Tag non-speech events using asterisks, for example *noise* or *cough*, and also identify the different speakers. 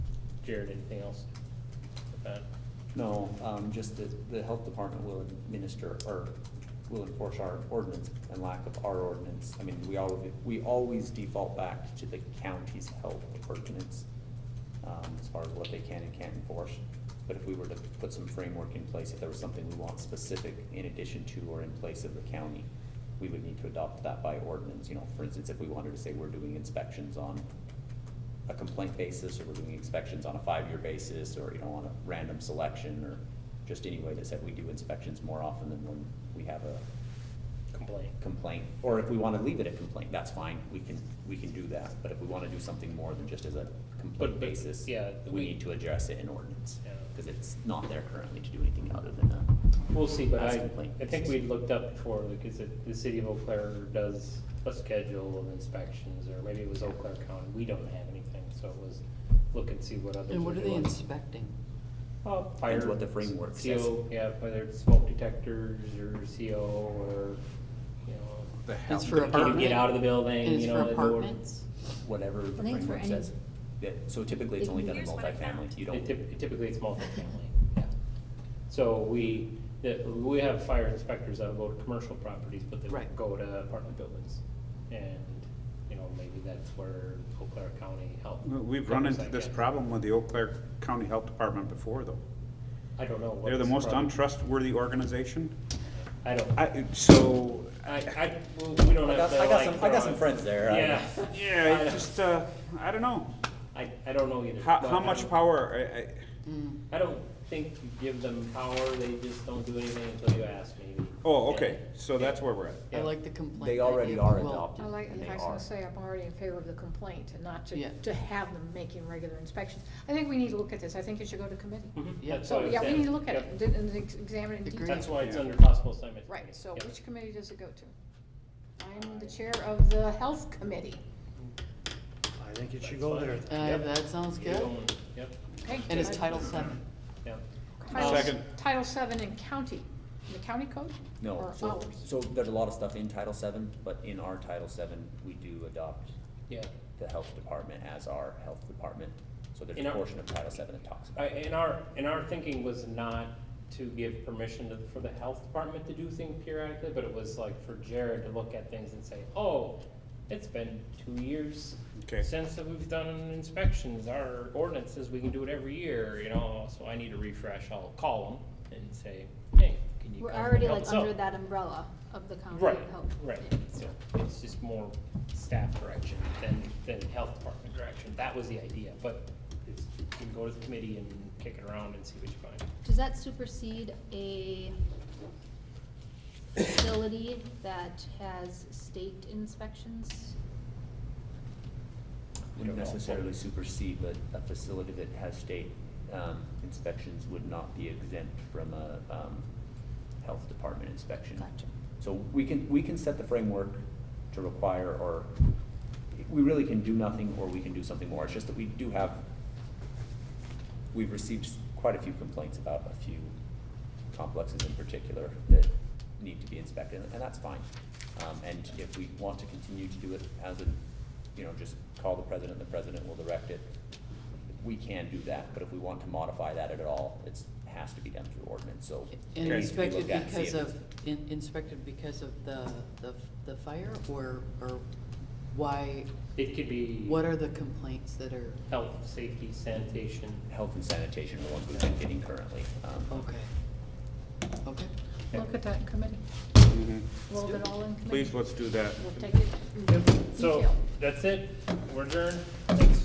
Speaker 1: Jared, anything else? with that?
Speaker 2: No, um, just that the health department will administer or will enforce our ordinance and lack of our ordinance. I mean, we always, we always default back to the county's health ordinance, um, as far as what they can and can't enforce. But if we were to put some framework in place, if there was something we want specific in addition to or in place of the county, we would need to adopt that by ordinance, you know, for instance, if we wanted to say we're doing inspections on a complaint basis, or we're doing inspections on a five-year basis, or, you know, on a random selection, or just any way that said we do inspections more often than when we have a
Speaker 1: Complaint.
Speaker 2: complaint. Or if we wanna leave it at complaint, that's fine, we can, we can do that, but if we wanna do something more than just as a
Speaker 1: But-
Speaker 2: complaint
Speaker 1: but,
Speaker 2: basis,
Speaker 1: yeah,
Speaker 2: we
Speaker 1: we-
Speaker 2: need to address it in ordinance.
Speaker 1: Yeah.
Speaker 2: Cause it's not there currently to do anything other than a,
Speaker 1: We'll see, but
Speaker 2: That's
Speaker 1: I,
Speaker 2: complaint
Speaker 1: I think
Speaker 2: basis.
Speaker 1: we looked up before, because it- the city of Eau Claire does a schedule of inspections, or maybe it was Eau Claire County, we don't have anything, so it was look and see what others are doing.
Speaker 3: And what are they inspecting?
Speaker 1: Uh,
Speaker 2: Depends
Speaker 1: fire-
Speaker 2: what the framework says.
Speaker 1: CO, yeah, whether it's smoke detectors, or CO, or, you know,
Speaker 4: The
Speaker 3: It's
Speaker 4: health
Speaker 3: for
Speaker 1: can you
Speaker 3: apartment?
Speaker 1: get out of the building,
Speaker 3: And
Speaker 1: you
Speaker 3: it's
Speaker 1: know.
Speaker 3: for
Speaker 1: the door-
Speaker 3: apartments?
Speaker 2: whatever the
Speaker 5: I think for
Speaker 2: framework
Speaker 5: any-
Speaker 2: says. Yeah, so typically it's only done in
Speaker 5: Here's what I found.
Speaker 2: multifamily, you
Speaker 1: It
Speaker 2: don't,
Speaker 1: typ- Typically, it's multifamily, yeah. So we, the- we have fire inspectors that will go to commercial properties, but they
Speaker 3: Right.
Speaker 1: won't go to apartment buildings. And, you know, maybe that's where Eau Claire County Health.
Speaker 4: We've run
Speaker 1: covers that
Speaker 4: into this
Speaker 1: gap.
Speaker 4: problem with the Eau Claire County Health Department before, though.
Speaker 1: I don't know. what
Speaker 4: They're the
Speaker 1: this
Speaker 4: most
Speaker 1: problem-
Speaker 4: untrustworthy organization.
Speaker 1: I don't, I,
Speaker 4: I, so,
Speaker 1: I, well, we don't
Speaker 2: I
Speaker 1: have
Speaker 2: got,
Speaker 1: to
Speaker 2: I
Speaker 1: like.
Speaker 2: got some, I got
Speaker 1: throw
Speaker 2: some
Speaker 1: it-
Speaker 2: friends there. I-
Speaker 1: Yeah.
Speaker 4: *laughs* yeah,
Speaker 1: I
Speaker 4: it
Speaker 1: don't-
Speaker 4: just, uh, I don't know.
Speaker 1: I, I don't know either.
Speaker 4: How,
Speaker 1: but
Speaker 4: how
Speaker 1: I
Speaker 4: much
Speaker 1: don't-
Speaker 4: power, I, I,
Speaker 3: Mm.
Speaker 1: I don't think you give them power, they just don't do anything until you ask, maybe.
Speaker 4: oh, okay, so that's where we're at.
Speaker 3: I
Speaker 1: Yeah.
Speaker 3: like the complaint.
Speaker 2: They already
Speaker 3: idea.
Speaker 2: are
Speaker 3: Well,
Speaker 2: adopted,
Speaker 5: I like,
Speaker 2: and they
Speaker 5: I was
Speaker 2: are.
Speaker 5: gonna say, I'm already in favor of the complaint and not to,
Speaker 3: Yeah.
Speaker 5: to have them making regular inspections. I think we need to look at this, I think it should go to committee.
Speaker 1: Mhm,
Speaker 3: Yeah.
Speaker 1: that's what
Speaker 5: So,
Speaker 1: I was
Speaker 5: yeah, we
Speaker 1: saying.
Speaker 5: need to look at
Speaker 1: Yep.
Speaker 5: it, and then- and then ex- examine it in
Speaker 3: Agree.
Speaker 5: detail.
Speaker 1: That's why it's
Speaker 4: Yeah.
Speaker 1: under possible assignment.
Speaker 5: Right, so
Speaker 1: Yep.
Speaker 5: which committee does it go to? I'm the chair of the health committee.
Speaker 6: I think it should go there.
Speaker 1: That's fine.
Speaker 3: Uh,
Speaker 1: Yep.
Speaker 3: that sounds
Speaker 1: You're
Speaker 3: good.
Speaker 1: going- Yep,
Speaker 5: Okay.
Speaker 3: And it's Title Seven.
Speaker 1: yep.
Speaker 5: Title-
Speaker 4: Second.
Speaker 5: Title seven in county, in the county code?
Speaker 2: No,
Speaker 5: Or
Speaker 2: so,
Speaker 5: ours?
Speaker 2: so there's a lot of stuff in Title VII, but in our Title VII, we do adopt
Speaker 1: Yeah.
Speaker 2: the health department as our health department. So there's
Speaker 1: In
Speaker 2: a
Speaker 1: our-
Speaker 2: portion of Title VII that talks about.
Speaker 1: I, and our, and our thinking was not to give permission to, for the health department to do things periodically, but it was like for Jared to look at things and say, oh, it's been two years
Speaker 4: Okay.
Speaker 1: since that we've done inspections, our ordinance says we can do it every year, you know, so I need a refresh, I'll call them and say, hey, can you
Speaker 7: We're
Speaker 1: come and
Speaker 7: already
Speaker 1: help
Speaker 7: like
Speaker 1: us out?"
Speaker 7: under that umbrella of the county
Speaker 1: Right,
Speaker 7: health.
Speaker 1: right, so it's just more staff direction than, than health department direction, that was the idea, but it's, you can go to the committee and kick it around and see what you find.
Speaker 7: Does that supersede a facility that has state inspections?
Speaker 2: Wouldn't
Speaker 1: I don't know.
Speaker 2: necessarily supersede, but a facility that has state, um, inspections would not be exempt from a, um, health department inspection.
Speaker 7: Gotcha.
Speaker 2: So we can, we can set the framework to require, or we really can do nothing, or we can do something more. It's just that we do have, we've received quite a few complaints about a few complexes in particular that need to be inspected, and that's fine. Um, and if we want to continue to do it as a, you know, just call the president, the president will direct it. We can do that, but if we want to modify that at all, it's, has to be done through ordinance, so. it
Speaker 3: And
Speaker 4: Okay.
Speaker 2: needs to be
Speaker 3: inspected
Speaker 2: looked at and see
Speaker 3: because
Speaker 2: if it's-
Speaker 3: of, in- inspected because of the, the, the fire or, or why,
Speaker 1: It could be
Speaker 3: what are the complaints that are,
Speaker 1: health, safety, sanitation,
Speaker 2: health and sanitation are the ones we've been getting currently. Um,
Speaker 3: okay. Okay,
Speaker 5: Look at that in committee,
Speaker 4: Mhm.
Speaker 5: roll it all in committee.
Speaker 4: Please, let's do that.
Speaker 5: We'll take it in
Speaker 1: So,
Speaker 5: detail.
Speaker 1: that's it, we're adjourned, thank